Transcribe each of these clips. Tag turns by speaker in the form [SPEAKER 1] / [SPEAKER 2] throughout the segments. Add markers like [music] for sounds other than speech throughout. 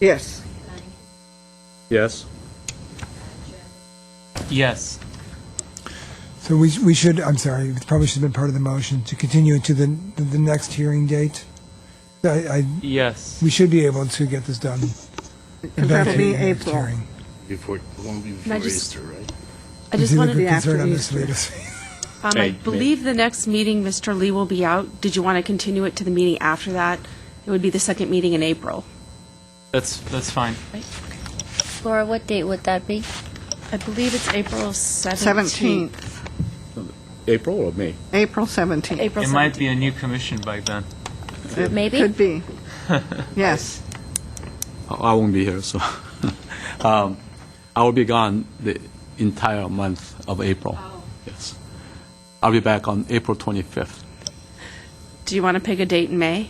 [SPEAKER 1] Yes.
[SPEAKER 2] Yes.
[SPEAKER 3] Yes.
[SPEAKER 4] So we, we should, I'm sorry, it probably should have been part of the motion, to continue to the, the next hearing date. I, I,
[SPEAKER 3] Yes.
[SPEAKER 4] we should be able to get this done.
[SPEAKER 1] And that'll be
[SPEAKER 4] Eventually, next
[SPEAKER 1] April.
[SPEAKER 4] hearing.
[SPEAKER 5] Before, won't be before
[SPEAKER 6] I just-
[SPEAKER 5] Easter, right?
[SPEAKER 6] I
[SPEAKER 4] Is
[SPEAKER 6] just
[SPEAKER 4] it a
[SPEAKER 6] wanted,
[SPEAKER 4] good
[SPEAKER 1] Yeah, after
[SPEAKER 4] concern on this
[SPEAKER 1] Easter.
[SPEAKER 4] latest-
[SPEAKER 6] um,
[SPEAKER 2] Hey, may-
[SPEAKER 6] I believe the next meeting, Mr. Lee will be out. Did you want to continue it to the meeting after that? It would be the second meeting in April.
[SPEAKER 3] That's that's fine.
[SPEAKER 7] Laura, what date would that be?
[SPEAKER 6] I believe it's April 17th.
[SPEAKER 1] 17th,
[SPEAKER 2] April or May?
[SPEAKER 1] April 17th.
[SPEAKER 6] April
[SPEAKER 3] It might
[SPEAKER 6] 17th.
[SPEAKER 3] be a new commission by then.
[SPEAKER 1] It
[SPEAKER 7] Maybe?
[SPEAKER 1] Could be. Yes.
[SPEAKER 8] I I won't be here, so [laughs] um, I will be gone the entire month of April.
[SPEAKER 7] Oh.
[SPEAKER 8] Yes, I'll be back on April 25th.
[SPEAKER 6] Do you want to pick a date in May?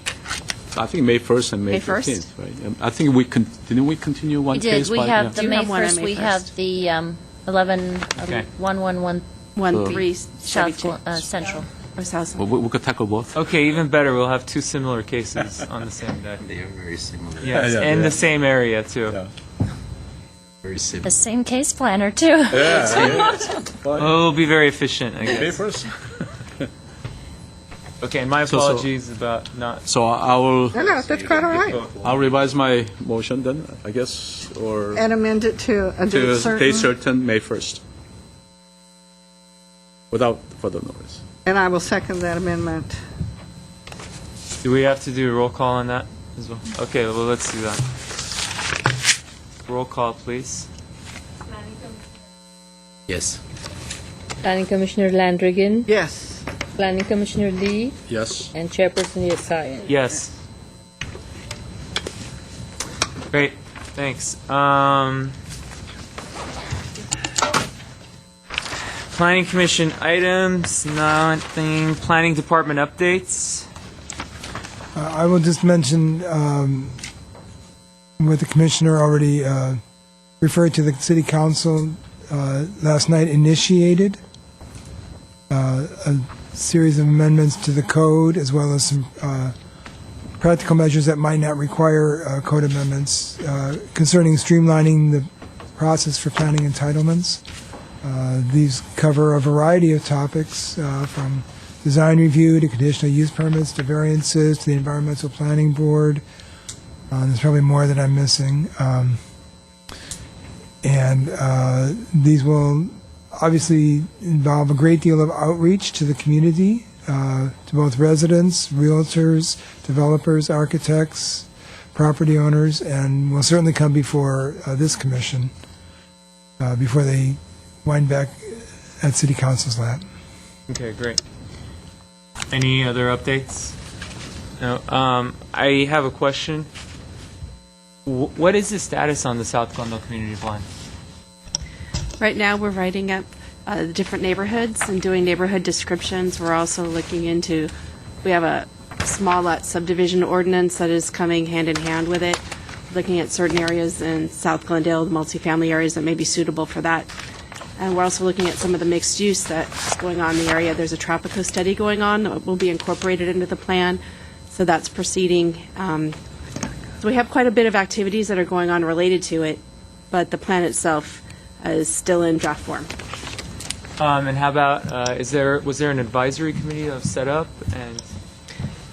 [SPEAKER 8] I think May 1st and
[SPEAKER 6] May
[SPEAKER 8] May
[SPEAKER 6] 1st?
[SPEAKER 8] 15th, right? Um, I think we con- didn't we continue one
[SPEAKER 7] We did,
[SPEAKER 8] case?
[SPEAKER 7] we
[SPEAKER 8] by-
[SPEAKER 7] have
[SPEAKER 8] yeah.
[SPEAKER 7] the
[SPEAKER 6] Do
[SPEAKER 7] May
[SPEAKER 6] have one on
[SPEAKER 7] 1st,
[SPEAKER 6] May
[SPEAKER 7] we have
[SPEAKER 6] 1st.
[SPEAKER 7] the um, 11,
[SPEAKER 3] Okay.
[SPEAKER 7] 111
[SPEAKER 6] 1,
[SPEAKER 8] Uh,
[SPEAKER 6] 3,
[SPEAKER 7] South Glo-
[SPEAKER 6] 72,
[SPEAKER 7] uh,
[SPEAKER 6] or
[SPEAKER 7] Central.
[SPEAKER 6] South
[SPEAKER 8] We-
[SPEAKER 6] Central?
[SPEAKER 8] We we could tackle both.
[SPEAKER 3] Okay, even better. We'll have two similar cases on the same day.
[SPEAKER 5] They are very similar.
[SPEAKER 2] [laughs]
[SPEAKER 3] Yes,
[SPEAKER 2] Yeah, yeah,
[SPEAKER 3] and
[SPEAKER 2] yeah.
[SPEAKER 3] the same area too.
[SPEAKER 2] Yeah.
[SPEAKER 5] Very similar.
[SPEAKER 7] The same case planner, too. [laughs]
[SPEAKER 3] Oh, it'll be very efficient.
[SPEAKER 2] [laughs]
[SPEAKER 3] I
[SPEAKER 2] May
[SPEAKER 3] guess.
[SPEAKER 2] 1st?
[SPEAKER 3] Okay, my
[SPEAKER 8] So- so-
[SPEAKER 3] apologies about not.
[SPEAKER 8] [laughs] So I I will,
[SPEAKER 1] No, no, that's quite all [laughs] right.
[SPEAKER 8] I'll revise my motion then, I guess, or
[SPEAKER 1] And amend it to a
[SPEAKER 7] Uh,
[SPEAKER 1] date
[SPEAKER 8] to date
[SPEAKER 1] certain.
[SPEAKER 8] certain, May 1st, without further notice.
[SPEAKER 1] And I will second that amendment.
[SPEAKER 3] Do we have to do a roll call on that as well? Okay, well let's do that. Roll call, please.
[SPEAKER 5] Yes.
[SPEAKER 9] Planning Commissioner Landrigan,
[SPEAKER 1] Yes.
[SPEAKER 9] Planning Commissioner Lee,
[SPEAKER 8] Yes.
[SPEAKER 9] and Chairperson Yasayan.
[SPEAKER 3] Yes. Great, thanks. Um, Planning Commission items, nothing. Planning Department updates.
[SPEAKER 4] Uh, I will just mention um, what the commissioner already uh, referred to the city council uh, last night initiated uh, a series of amendments to the code as well as some uh, practical measures that might not require uh, code amendments uh, concerning streamlining the process for planning entitlements. Uh, These cover a variety of topics, uh, from design review to conditional use permits to variances to the environmental planning board. Uh, There's probably more that I'm missing. Um, And uh, these will obviously involve a great deal of outreach to the community, uh, to both residents, realtors, developers, architects, property owners, and will certainly come before uh, this commission, uh, before they wind back at city council's lap.
[SPEAKER 3] Okay, great. Any other updates? No. Um, I have a question. Wh- what is the status on the South Glendale Community Plan?
[SPEAKER 6] Right now, we're writing up uh, the different neighborhoods and doing neighborhood descriptions. We're also looking into, we have a small lot subdivision ordinance that is coming hand in hand with it, looking at certain areas in South Glendale, the multifamily areas that may be suitable for that. And we're also looking at some of the mixed use that's going on in the area. There's a Tropico study going on that will be incorporated into the plan, so that's proceeding. Um, so we have quite a bit of activities that are going on related to it, but the plan itself uh, is still in draft form.
[SPEAKER 3] Um, and how about uh, is there was there an advisory committee that was set up and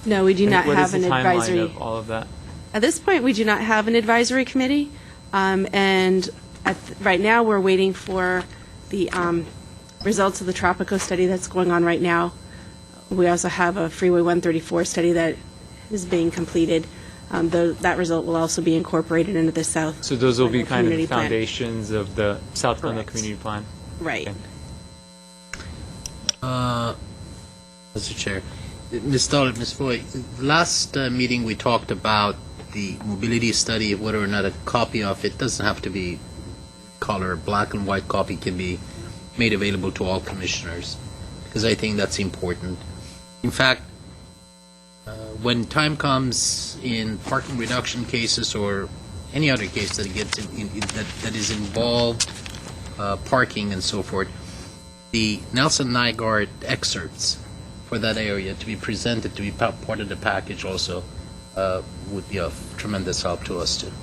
[SPEAKER 6] No, we do not
[SPEAKER 3] what is
[SPEAKER 6] have
[SPEAKER 3] the
[SPEAKER 6] an
[SPEAKER 3] timeline
[SPEAKER 6] advisory.
[SPEAKER 3] of all of that?
[SPEAKER 6] At this point, we do not have an advisory committee, um, and at, th- right now, we're waiting for the um, results of the Tropico study that's going on right now. We also have a Freeway 134 study that is being completed. Um, tho- That result will also be incorporated into the South.
[SPEAKER 3] So those will be
[SPEAKER 6] Glendale
[SPEAKER 3] kind of the
[SPEAKER 6] community plan.
[SPEAKER 3] foundations of the South Glendale
[SPEAKER 6] Correct.
[SPEAKER 3] Community Plan.
[SPEAKER 6] Right.
[SPEAKER 3] Okay.
[SPEAKER 5] Mr. Uh, Chair, Ms. Stoller, Ms. Foy, last uh, meeting we talked about the mobility study, whether or not a copy of it doesn't have to be color, black and white copy can be made available to all commissioners, because I think that's important. In fact, uh, when time comes in parking reduction cases or any other case that gets in, in- in- that, that is involved uh, parking and so forth, the Nelson Nygaard excerpts for that area to be presented, to be pa- part of the package also, uh, would be of tremendous help to us too.